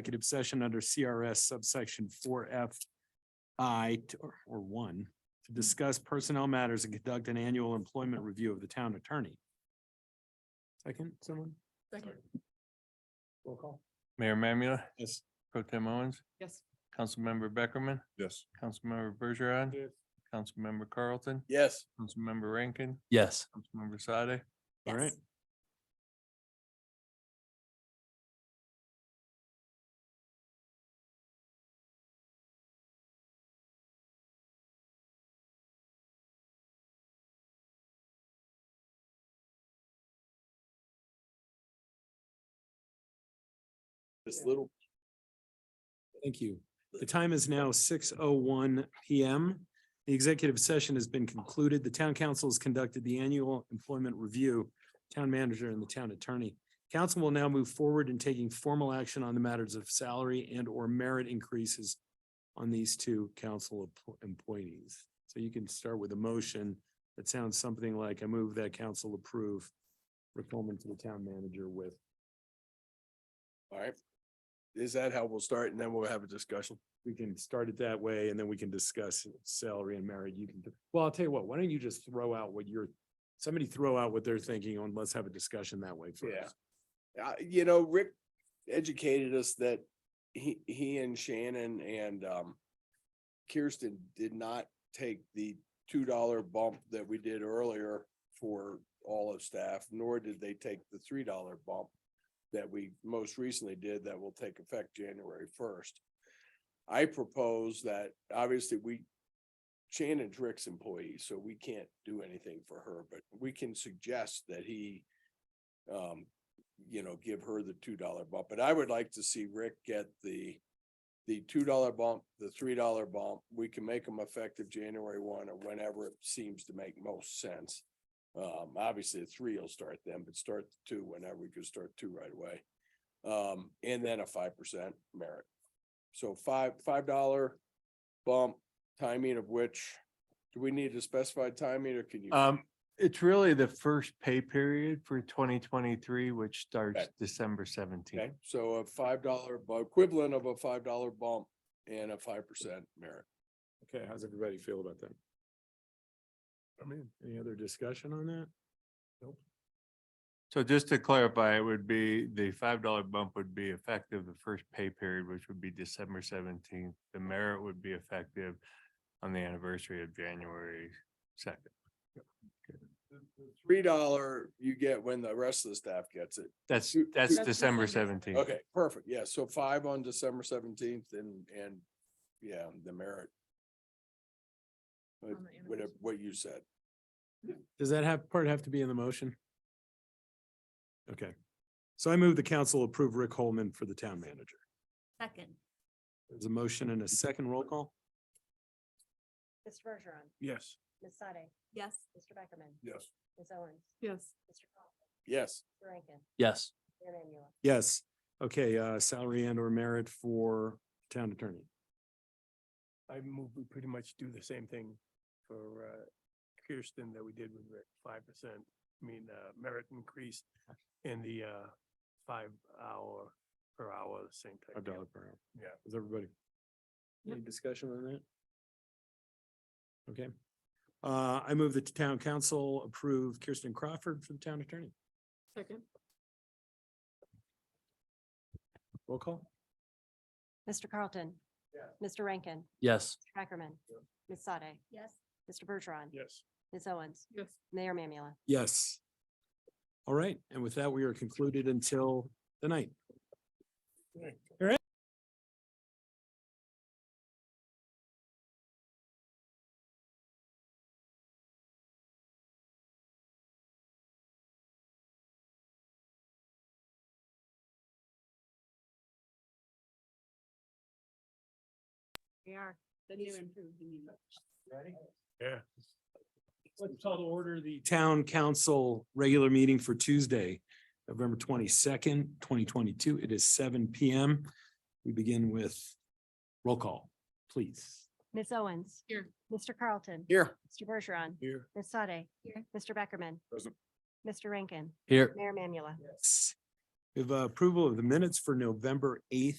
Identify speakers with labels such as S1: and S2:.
S1: executive session under CRS subsection four F I t- or- or one to discuss personnel matters and conduct an annual employment review of the town attorney. Second, someone?
S2: Second.
S1: Roll call.
S3: Mayor Mamula,
S1: Yes.
S3: Pro Tem Owens,
S2: Yes.
S3: Councilmember Beckerman,
S4: Yes.
S3: Councilmember Bergeron, Councilmember Carlton,
S4: Yes.
S3: Councilmember Rankin,
S4: Yes.
S3: Councilmember Sade.
S1: All right.
S2: Yes.
S4: This little.
S1: Thank you. The time is now six oh one PM. The executive session has been concluded. The town council has conducted the annual employment review, town manager and the town attorney. Council will now move forward in taking formal action on the matters of salary and or merit increases on these two council empl- employees. So you can start with a motion that sounds something like, I move that council approve Rick Coleman to the town manager with,
S4: All right. Is that how we'll start? And then we'll have a discussion.
S1: we can start it that way and then we can discuss salary and merit. You can, well, I'll tell you what, why don't you just throw out what you're, somebody throw out what they're thinking on, let's have a discussion that way
S4: Yeah.
S1: first.
S4: Uh, you know, Rick educated us that he, he and Shannon and, um, Kirsten did not take the two dollar bump that we did earlier for all of staff, nor did they take the three dollar bump that we most recently did that will take effect January first. I propose that obviously we, Shannon's Rick's employee, so we can't do anything for her, but we can suggest that he um, you know, give her the two dollar bump, but I would like to see Rick get the the two dollar bump, the three dollar bump, we can make them effective January one or whenever it seems to make most sense. Um, obviously, the three will start then, but start the two whenever we could start two right away. Um, and then a five percent merit. So five, five dollar bump, timing of which, do we need to specify timing or can you?
S3: Um, it's really the first pay period for twenty twenty-three, which starts
S4: Okay.
S3: December seventeenth.
S4: Okay, so a five dollar, equivalent of a five dollar bump and a five percent merit.
S1: Okay, how's everybody feel about that? I mean, any other discussion on that?
S3: So just to clarify, it would be, the five dollar bump would be effective the first pay period, which would be December seventeenth. The merit would be effective on the anniversary of January second.
S4: Three dollar you get when the rest of the staff gets it.
S3: That's,
S4: Two-
S3: that's
S2: That's
S3: December
S2: December.
S3: seventeenth.
S4: Okay, perfect. Yeah, so five on December seventeenth and, and, yeah, the merit. But
S2: On the
S4: Whatever,
S2: anniversary.
S4: what you said.
S1: Does that have, part have to be in the motion? Okay, so I move the council approve Rick Holman for the town manager.
S2: Second.
S1: There's a motion and a second roll call?
S5: Mr. Bergeron,
S4: Yes.
S5: Ms. Sade,
S2: Yes.
S5: Mr. Beckerman,
S4: Yes.
S5: Ms. Owens,
S2: Yes.
S5: Mr. Coughlin,
S4: Yes,
S5: Mr. Rankin,
S6: Yes,
S5: Mayor Mamula.
S1: Yes, okay, uh, salary and or merit for town attorney.
S7: I move we pretty much do the same thing for uh, Kirsten that we did with Rick, five percent. I mean, uh, merit increase in the uh, five hour per hour, same type.
S1: A
S7: deal.
S1: dollar per hour.
S7: Yeah.
S1: Is everybody? Any discussion on that? Okay, uh, I move that the town council approve Kirsten Crawford for the town attorney.
S2: Second.
S1: Roll call?
S5: Mr. Carlton. Mr. Rankin,
S6: yes,
S5: Mr. Beckerman, Ms. Sade,
S2: Yes.
S5: Mr. Bergeron,
S7: Yes.
S5: Ms. Owens,
S2: Yes.
S5: Mayor Mamula.
S1: Yes. All right, and with that, we are concluded until the night.
S2: We are. The new improved meeting.
S7: Yeah.
S1: Let's call to order the town council regular meeting for Tuesday, November twenty-second, twenty twenty-two. It is seven P M. We begin with roll call, please.
S5: Ms. Owens.
S2: Here.
S5: Mr. Carlton.
S4: here.
S5: Mr. Bergeron,
S4: Here.
S5: Ms. Sade.
S2: Here.
S5: Mr. Beckerman.
S4: Present.
S5: Mr. Rankin,
S6: here,
S5: Mayor Mamula.
S1: Yes. We have uh, approval of the minutes for November eighth,